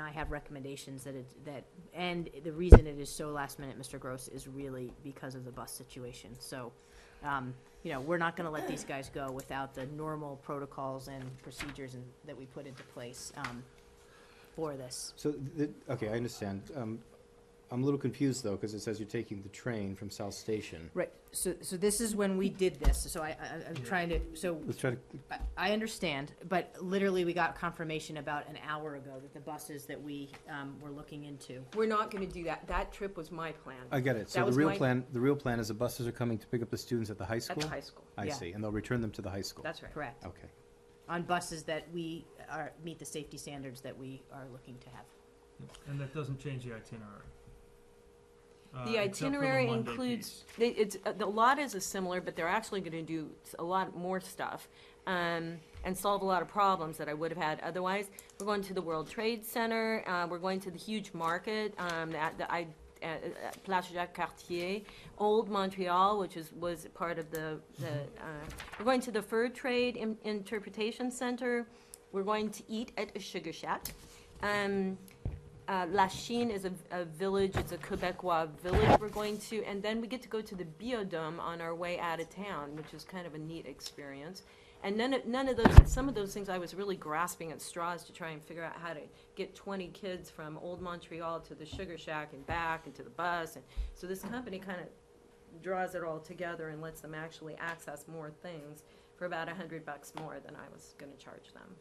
I have recommendations that it, that, and the reason it is so last minute, Mr. Gross, is really because of the bus situation. So, um, you know, we're not gonna let these guys go without the normal protocols and procedures and, that we put into place, um, for this. So, the, okay, I understand. Um, I'm a little confused though, because it says you're taking the train from South Station. Right, so, so this is when we did this, so I, I, I'm trying to, so Let's try to, I- I understand, but literally, we got confirmation about an hour ago that the buses that we um, were looking into. We're not gonna do that. That trip was my plan I get it. So That the was real my- plan, the real plan is the buses are coming to pick up the students at the high at school? the high school. I yeah. see, and they'll return them to the high school. That's right. Correct. Okay. On buses that we are, meet the safety standards that we are looking to have. And that doesn't change the itinerary. Uh, The except for itinerary Monday includes, piece. they- it's, uh, the lot is a similar, but they're actually gonna do s- a lot more stuff, um, and solve a lot of problems that I would have had otherwise. We're going to the World Trade Center, uh, we're going to the huge market, um, at the, I, at, at Place Jacques Cartier, Old Montreal, which is, was part of the, the, uh, we're going to the Fur Trade In- Interpretation Center, we're going to eat at a Sugar Shack. Um, uh, Lachine is a, a village, it's a Quebecois village we're going to, and then we get to go to the Biodome on our way out of town, which is kind of a neat experience. And none of, none of those, some of those things I was really grasping at straws to try and figure out how to get twenty kids from Old Montreal to the Sugar Shack and back and to the bus, and, so this company kind of draws it all together and lets them actually access more things for about a hundred bucks more than I was gonna charge them.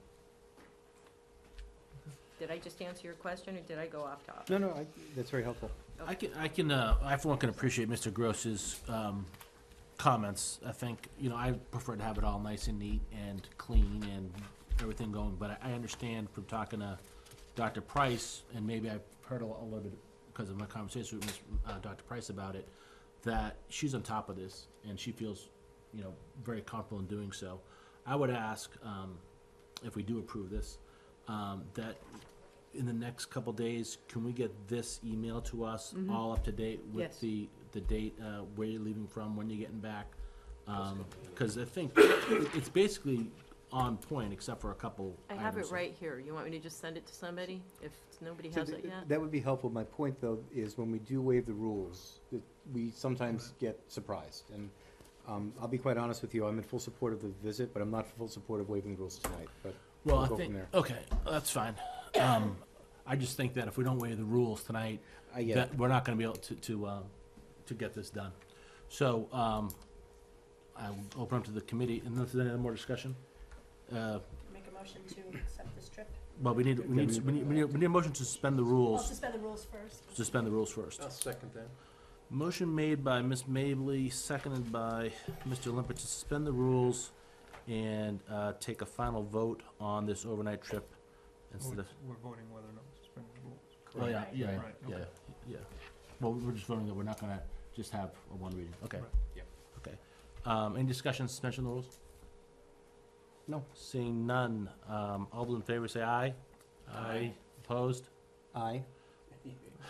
Did I just answer your question, or did I go off topic? No, no, I, that's very helpful. I can, I can, uh, I for one can appreciate Mr. Gross's, um, comments. I think, you know, I prefer to have it all nice and neat and clean and everything going, but I, I understand from talking to Dr. Price, and maybe I've heard a, a little bit because of my conversation with Ms., uh, Dr. Price about it, that she's on top of this and she feels, you know, very comfortable in doing so. I would ask, um, if we do approve this, um, that in the next couple days, can we get this email to us Mm-hmm. all up to date Yes. with the, the date, uh, where you're leaving from, when you're getting back? Um 'cause cause I think it's basically on point except for a couple I items. have it right here. You want me to just send it to somebody if nobody So has th- it yet? That would be helpful. My point though is when we do waive the rules, that we sometimes get surprised. And, um, I'll be quite honest with you, I'm in full support of the visit, but I'm not in full support of waiving the rules tonight, but Well, we'll I go from think, there. okay, that's fine. Um, I just think that if we don't waive the rules tonight, I get that it. we're not gonna be able to, to, um, to get this done. So, um, I will open up to the committee, and if there's any more discussion, uh, Make a motion to accept this trip. well, we need, we need, we need, we need, we need a motion to suspend the I'll rules, suspend the rules first. suspend the rules first. second that. Motion made by Ms. Mably, seconded by Mr. Limpert to suspend the rules and, uh, take a final vote on this overnight trip instead We're of, we're voting whether or not to suspend the rules. oh, yeah, yeah, Right, yeah, okay. yeah. Well, we're just voting that we're not gonna just have a one reading, okay. Right. Yep. Okay, um, any discussion, suspension of the rules? No. Seeing none, um, all those in favor say aye. Aye. Opposed? Aye,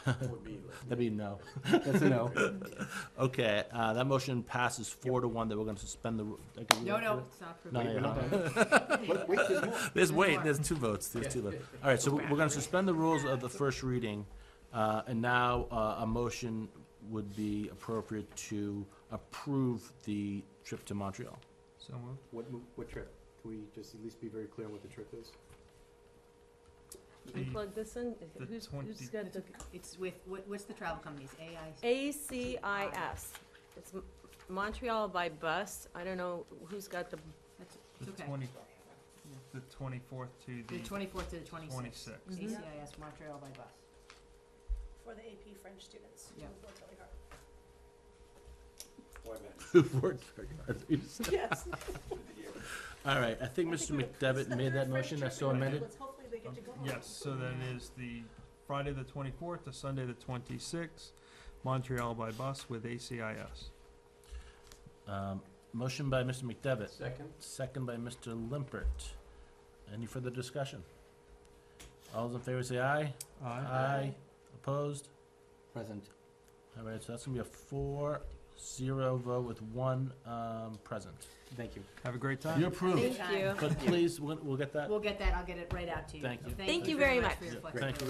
That'd be no. that's a no. Okay, uh, that motion passes four to one that we're gonna suspend the. ru- I can- it's not approved. No, no, no. Wait, wait, there's more. There's, wait, there's two votes, there's two votes. All right, so we're gonna suspend the rules of the first reading, uh, and now, uh, a motion would be appropriate to approve the trip to Montreal. So moved. What, mo- what trip? Can we just at least be very clear on what the trip is? Can you plug this in? the Who's, who's 20 got the? It's with, what, what's the travel companies, AI? ACIS. It's M- Montreal by bus. I don't know who's got the, That's- The It's okay. twenty, the twenty-fourth to The the twenty-fourth to the twenty-sixth. twenty-sixth. Mhm. ACIS Montreal by bus. For the AP French students. Yeah. Who worked really hard. Who've worked very hard. Yes. All right, I think I Mr. think we're- it's McDevitt the made that third French motion, that's trip so in amended. Let's Hopefully they get to go home. Yes, so then is the Friday the twenty-fourth to Sunday the twenty-sixth, Montreal by bus with ACIS. Um, motion by Mr. McDevitt, Second? second by Mr. Limpert. Any further discussion? All those in favor say aye. Aye. Opposed? Present. All right, so that's gonna be a four, zero vote with one, um, present. Thank you. Have a great time. You're approved, thank you. but please, we'll, we'll get that. We'll get that, I'll get it right out to you. Thank you. Thank you very much. for your Yeah, thank you. flexibility.